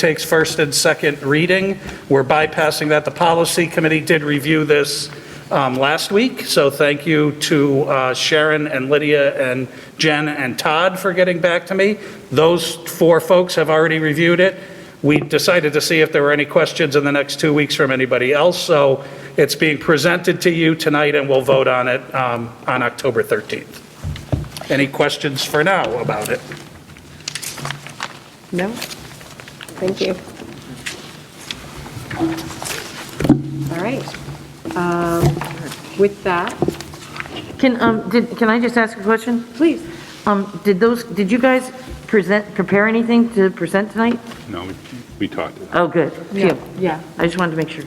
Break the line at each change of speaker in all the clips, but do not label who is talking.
takes first and second reading. We're bypassing that. The policy committee did review this um, last week, so thank you to uh, Sharon and Lydia and Jen and Todd for getting back to me. Those four folks have already reviewed it. We decided to see if there were any questions in the next two weeks from anybody else, so it's being presented to you tonight, and we'll vote on it um, on October 13th. Any questions for now about it?
No? Thank you. All right. Um, With that,
Can, um, did, can I just ask a question?
please,
Um, did those, did you guys present, prepare anything to present tonight?
No, we- we talked.
Oh, good.
yeah,
Phew.
yeah.
I just wanted to make sure.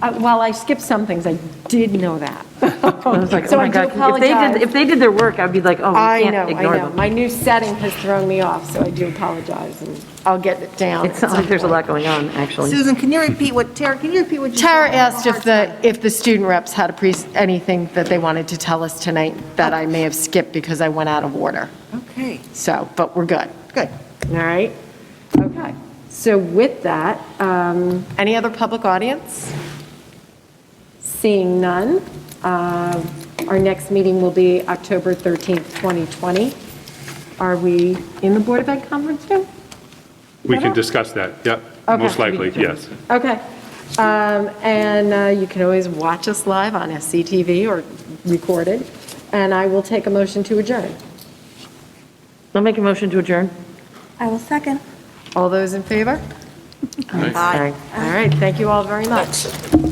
Uh, While I skipped some things, I did know that.
I was like, oh
So I
my
do
God. If they
apologize.
did, if they did their work, I'd be like, oh,
I
we
know,
can't
I
ignore
know.
them.
My new setting has thrown me off, so I do apologize, and I'll get it down.
It sounds like there's a lot going on, actually.
Susan, can you repeat what, Tara, can you repeat what you said?
Tara
I have a
asked if
hard
the,
time.
if the student reps had a pre, anything that they wanted to tell us tonight
Oh.
that I may have skipped because I went out of order.
Okay,
So, but we're good.
good.
All right, okay. So with that, um,
Any other public audience?
seeing none, uh, our next meeting will be October 13th, 2020. Are we in the Board of Ed conference room?
We can discuss that, yep,
Okay.
most likely, yes.
Okay. Um, And uh, you can always watch us live on SCTV or recorded. And I will take a motion to adjourn.
I'll make a motion to adjourn.
I will second.
All those in favor?
Aye.
All right, thank you all very much.